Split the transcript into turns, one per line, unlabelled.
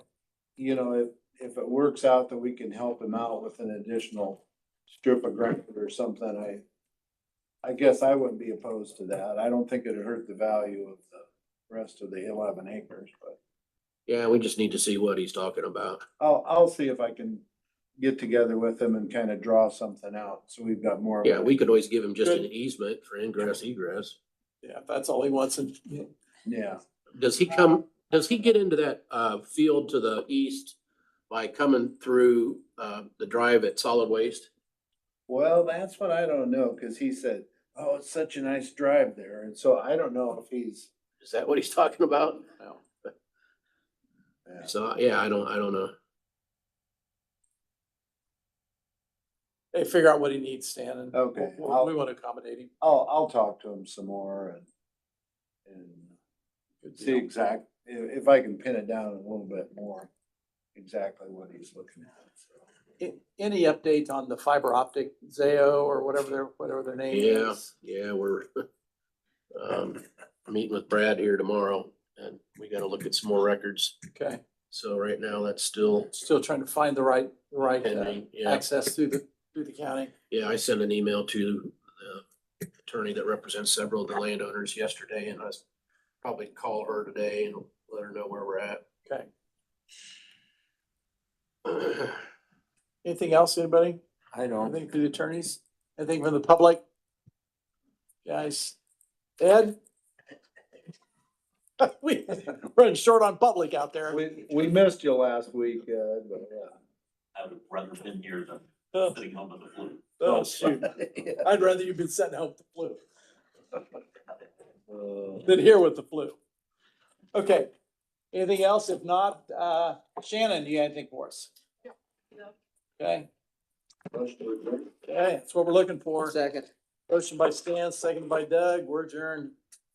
you know, if, if it works out that we can help him out with an additional strip of ground or something, I, I guess I wouldn't be opposed to that. I don't think it'd hurt the value of the rest of the eleven acres, but
Yeah, we just need to see what he's talking about.
I'll, I'll see if I can get together with him and kind of draw something out, so we've got more. of a-
Yeah, we could always give him just an easement for ingress egress.
Yeah, if that's all he wants and
Yeah,
Does he come, does he get into that uh field to the east by coming through uh the drive at solid waste?
well, that's what I don't know, cause he said, oh, it's such a nice drive there, and so I don't know if he's.
Is that what he's talking about?
yeah.
So, yeah, I don't, I don't know.
they figure out what he needs, Stan, and
Okay,
we- we
I'll-
want to accommodate him.
I'll, I'll talk to him some more and, and see exact, if, if I can pin it down a little bit more, exactly what he's looking at, so.
A- Any update on the fiber optic Zayo or whatever their, whatever their name
Yeah.
is?
Yeah, we're um meeting with Brad here tomorrow and we gotta look at some more records.
Okay,
So right now, that's still
still trying to find the right, right uh,
pending. Yeah,
access through the, through the county.
yeah, I sent an email to the attorney that represents several of the landowners yesterday and I s- probably call her today and let her know where we're at.
Okay.
Okay.
Anything else, anybody?
I don't.
Anything through the attorneys? Anything from the public? Guys, Ed? We, running short on public out there.
We, we missed you last week, uh, but
I would rather been here
Oh.
than sitting home with the flu.
Oh, shoot.
yeah.
I'd rather you've been sent home with the flu
Uh,
than here with the flu. Okay, anything else? If not, uh, Shannon, you got anything for us? Okay, okay, that's what we're looking for.
Second.
Motion by Stan, second by Doug, we're adjourned.